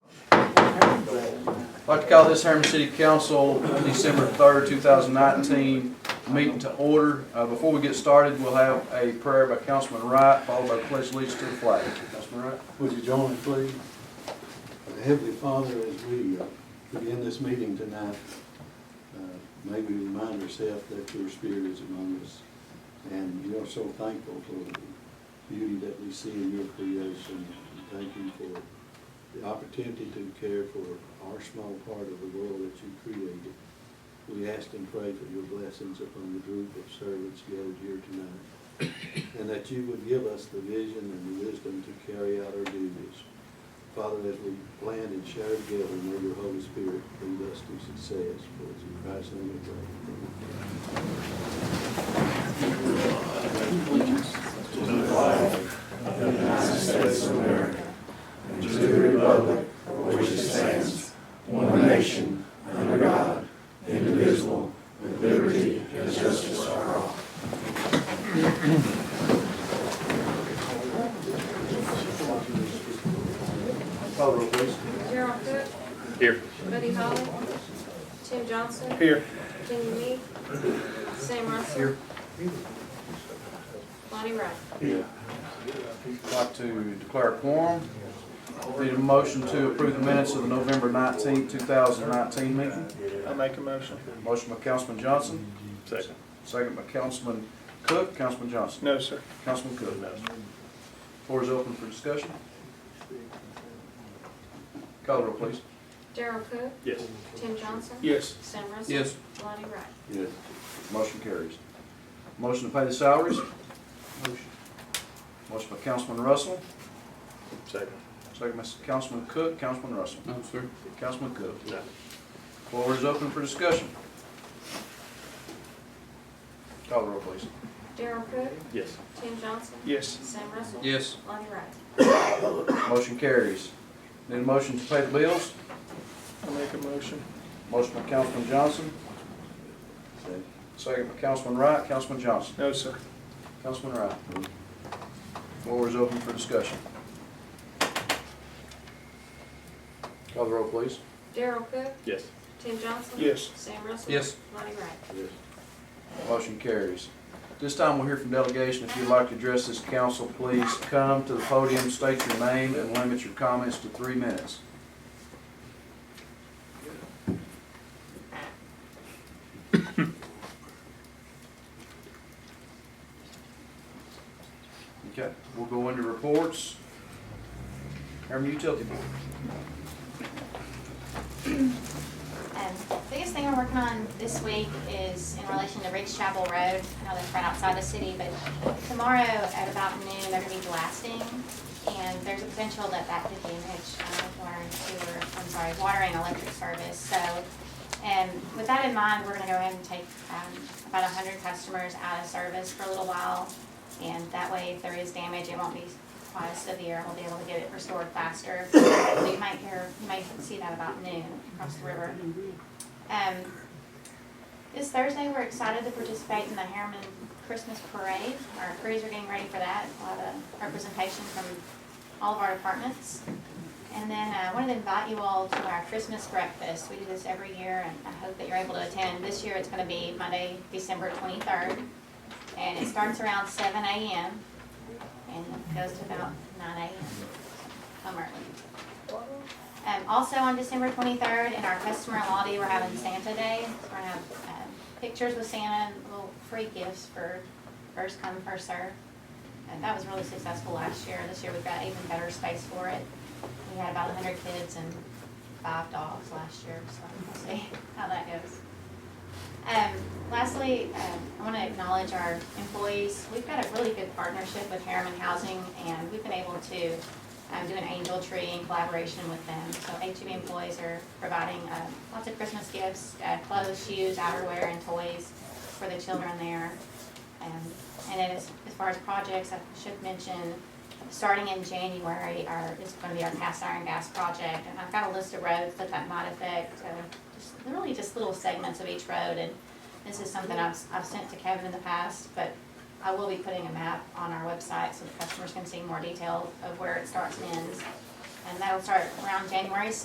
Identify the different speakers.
Speaker 1: I'd like to call this Herman City Council, December third, two thousand nineteen, meeting to order. Uh, before we get started, we'll have a prayer by Councilman Wright, followed by the pledge of allegiance to the flag. Councilman Wright?
Speaker 2: Would you join me, please? Heavenly Father, as we uh, begin this meeting tonight, uh, may we remind ourselves that your spirit is among us. And we are so thankful for the beauty that we see in your creation. And Thank you for the opportunity to care for our small part of the world that you created. We ask and pray for your blessings upon the group of servants gathered here tonight and that you would give us the vision and the wisdom to carry out our duties. Father, as we plan and share together, may your Holy Spirit lead us to success. For it's in Christ's name we pray.
Speaker 1: Call the roll, please.
Speaker 3: Gerald Cook.
Speaker 4: Here.
Speaker 3: Buddy Holly. Tim Johnson.
Speaker 4: Here.
Speaker 3: Kenny Me. Sam Russell. Lonnie Wright.
Speaker 1: I'd like to declare a quorum. Need a motion to approve the minutes of the November nineteenth, two thousand nineteen meeting.
Speaker 4: I make a motion.
Speaker 1: Motion by Councilman Johnson,
Speaker 4: Second.
Speaker 1: second by Councilman Cook, Councilman Johnson.
Speaker 4: No, sir.
Speaker 1: Councilman Cook. Floor is open for discussion. Call the roll, please.
Speaker 3: Gerald Cook.
Speaker 4: Yes.
Speaker 3: Tim Johnson.
Speaker 4: Yes.
Speaker 3: Sam Russell.
Speaker 1: Yes.
Speaker 3: Lonnie Wright.
Speaker 2: Yes.
Speaker 1: Motion carries. Motion to pay the salaries? Motion. Motion by Councilman Russell,
Speaker 4: Second.
Speaker 1: second by Councilman Cook, Councilman Russell. No, sir. Councilman Cook.
Speaker 4: No.
Speaker 1: Floor is open for discussion. Call the roll, please.
Speaker 3: Gerald Cook.
Speaker 4: Yes.
Speaker 3: Tim Johnson.
Speaker 4: Yes.
Speaker 3: Sam Russell.
Speaker 1: Yes.
Speaker 3: Lonnie Wright.
Speaker 1: Motion carries. Need a motion to pay the bills?
Speaker 4: I make a motion.
Speaker 1: Motion by Councilman Johnson,
Speaker 2: Second.
Speaker 1: second by Councilman Wright, Councilman Johnson.
Speaker 4: No, sir.
Speaker 1: Councilman Wright. Floor is open for discussion. Call the roll, please.
Speaker 3: Gerald Cook.
Speaker 4: Yes.
Speaker 3: Tim Johnson.
Speaker 4: Yes.
Speaker 3: Sam Russell.
Speaker 1: Yes.
Speaker 3: Lonnie Wright.
Speaker 2: Yes.
Speaker 1: Motion carries. This time we'll hear from delegation. If you'd like to address this council, please come to the podium, state your name, and limit your comments to three minutes. Okay, we'll go into reports. Airman Utility Board.
Speaker 5: Um, biggest thing we're working on this week is in relation to Ridge Chapel Road. I know that's right outside the city, but tomorrow at about noon, they're gonna be blasting. And there's a potential that that could damage, uh, water and sewer, I'm sorry, water and electric service. So, and with that in mind, we're gonna go ahead and take, um, about hundred customers out of service for a little while. And that way, if there is damage, it won't be quite as severe, we'll be able to get it restored faster. So you might hear, you might see that about noon across the river. Um, this Thursday, we're excited to participate in the Harriman Christmas Parade. Our crews are getting ready for that, a lot of representation from all of our departments. And then uh, I wanted to invite you all to our Christmas breakfast. We do this every year, and I hope that you're able to attend. This year, it's gonna be Monday, December twenty-third, and it starts around seven AM and goes to about nine AM. Come early. Um, also on December twenty-third, in our customer lobby, we're having Santa Day. We're gonna have, um, pictures with Santa and little free gifts for first come, first serve. And that was really successful last year. This year we've got even better space for it. We had about hundred kids and five dogs last year, so we'll see how that goes. Um, lastly, um, I want to acknowledge our employees. We've got a really good partnership with Harriman Housing, and we've been able to um, do an angel tree in collaboration with them. So HEB employees are providing uh, lots of Christmas gifts, uh, clothes, shoes, outerwear, and toys for the children there. Um, and then as, as far as projects, I should mention, starting in January, our, is gonna be our cast iron gas project. And I've got a list of roads that that might affect, uh, so just, really just little segments of each road. And this is something I've, I've sent to Kevin in the past, but I will be putting a map on our website so the customers can see more detail of where it starts and ends. And that'll start around January sixth.